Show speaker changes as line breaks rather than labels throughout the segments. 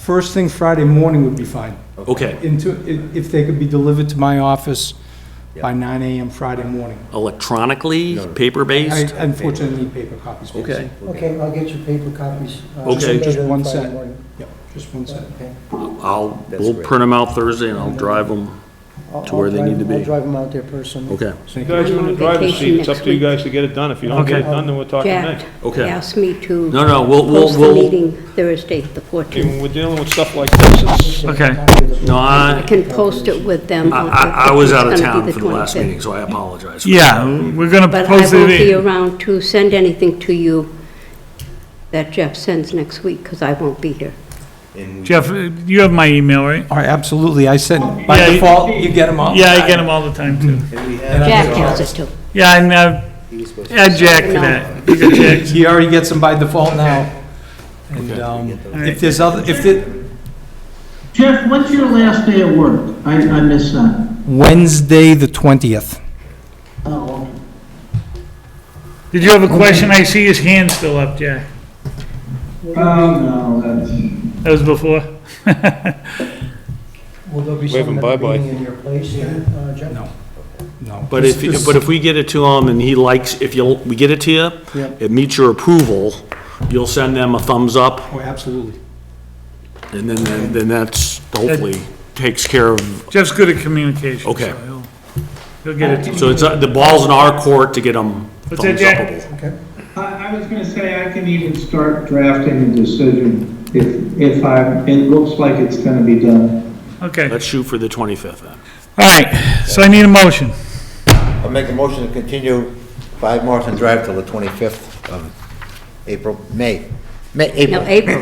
first thing Friday morning would be fine.
Okay,
Into, i- if they could be delivered to my office by nine AM Friday morning.
electronically,
I
paper-based?
unfortunately need paper copies. please.
Okay,
Okay, I'll get you paper copies. uh,
Okay.
later
Just
on
one
Friday
set.
morning.
Yep, just one second.
Okay.
I'll,
That's
we'll
great.
print them out Thursday and I'll drive them.
I'll-
To where
I'll
they
drive-
need to be.
I'll drive them out there personally.
Okay,
You guys are in the driver's seat, it's up to you guys to get it done. If you don't get it done, then we're talking
Jack
next.
Okay.
asked me to.
No, no, we'll- we'll-
Post the
we'll-
meeting Thursday, the 14th.
When we're dealing with stuff like this, it's-
Okay.
no,
I
I,
can post it with them.
I,
on the-
I- I was
it's
out of
gonna
town
be
for the last
25th.
meeting, so I apologize. for
Yeah,
that.
we're going to
But I
post it.
will be
in-
around to send anything to you that Jeff sends next week, because I won't be here.
And we-
Jeff, you have my email, right?
All right, absolutely, I sent, by
Yeah, you-
default, you get them
Oh,
all.
Yeah, I get them all the time, too.
and we have- uh,
Jack has it too.
Yeah, and uh,
He was supposed to-
add Jack to that. You got Jack.
He already gets them by default now. And um, if there's other, if it,
Jeff, when's your last day of work? I, I missed that.
Wednesday, the 20th.
Oh, okay.
Did you have a question? I see his hand still up, Jack.
Um,
Oh, no, that's.
That was before.
Will there be
Wave 'em
someone at the
bye-bye.
meeting in your place, uh, Jeff?
No. No.
But if, but if we get it to him and he likes, if you, we get it to you,
Yep.
it meets your approval, you'll send them a thumbs up,
Oh, absolutely.
and then- then, then that's, hopefully, takes care of,
Jeff's good at communication. so
Okay.
he'll- He'll get it to you.
so it's, uh, the ball's in our court to get them
What's
thumbs
that, Jack?
upable.
Okay.
I, I was gonna say, I can even start drafting a decision if, if I, it looks like it's gonna be done.
Oh.
Okay.
Let's shoot for the 25th then.
All right, so I need a motion.
I'll make a motion to continue 5 Morrison Drive till the 25th of April, May, May,
No,
April.
April.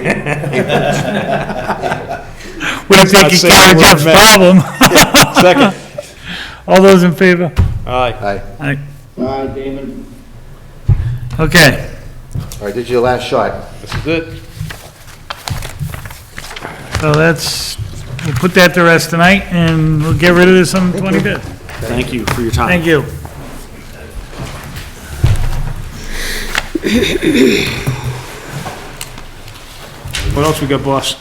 We
not
don't think you
saying
care
the word
Jeff's
man.
problem.
second.
All those in favor?
Aye.
Aye.
All right,
Bye, Damon.
okay.
All right, this is your last shot.
This is it.
So that's, we'll put that to rest tonight, and we'll get rid of this on the 25th.
Thank you for your time.
Thank you.
What else we got, boss?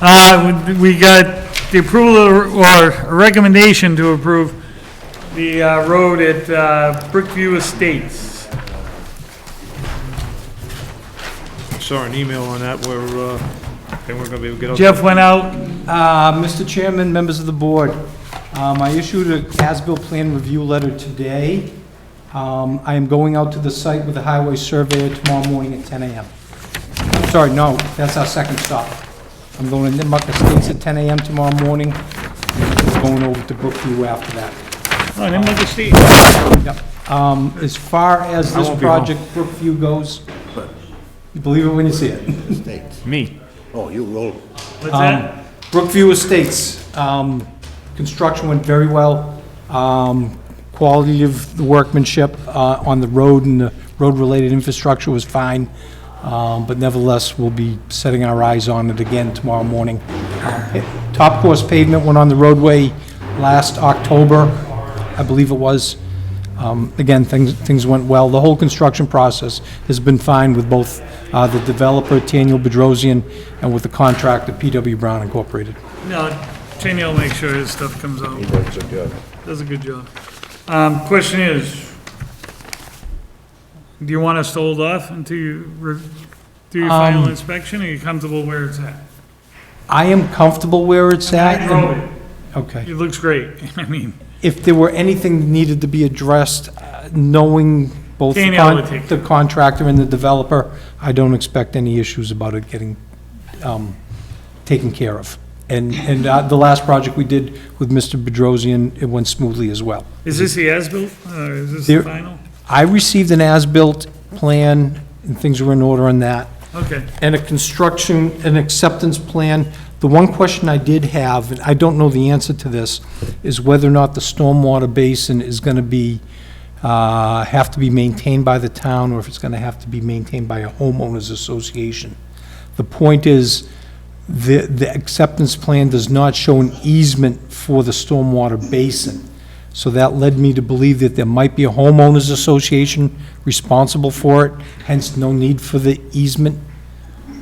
Uh, we we got the approval or recommendation to approve the uh, road at uh, Brookview Estates.
Saw an email on that where, uh, they weren't gonna be able to get out.
Jeff went out, oh,
Uh, Mr. Chairman, members of the board, um, I issued a as-built plan review letter today. Um, I am going out to the site with the highway surveyor tomorrow morning at 10 AM. I'm Sorry, no, that's our second stop. I'm going to Nipmuc Estates at 10 AM tomorrow morning, and going over to Brookview after that.
oh, I didn't look at Steve.
Yep. Um, As far as this
won't be home.
project Brookview goes, you believe it when you see it.
Thanks.
Me.
Oh, you rolled.
What's that?
Brookview Estates, um, construction went very well. Um, Quality of the workmanship uh, on the road and the road-related infrastructure was fine, Um, but nevertheless, we'll be setting our eyes on it again tomorrow morning. Uh, Top course pavement went on the roadway last October, I believe it was. Um, Again, things, things went well. The whole construction process has been fine with both uh, the developer, Daniel Bedrosian, and with the contractor, PW Brown Incorporated.
No, Cheney will make sure his stuff comes out.
Um, He did a good job.
Does a good job. Um, question is, do you want us to hold off until you re- do your final
Um,
inspection? Are you comfortable where it's at?
I am comfortable where it's at.
I
and-
drove it.
Okay.
It looks great. I mean,
If there were anything that needed to be addressed, uh, knowing both the
Danielle would
con-
take
the contractor and the developer, I don't expect any issues about it getting um, taken care of. And, and uh, the last project we did with Mr. Bedrosian, it went smoothly as well.
is this the as-built, or is this
There-
the final?
I received an as-built plan, and things were in order on that,
Okay.
and a construction, an acceptance plan. The one question I did have, and I don't know the answer to this, is whether or not the stormwater basin is going to be, uh, have to be maintained by the town, or if it's going to have to be maintained by a homeowners association. The point is, the, the acceptance plan does not show an easement for the stormwater basin. So that led me to believe that there might be a homeowners association responsible for it, hence no need for the easement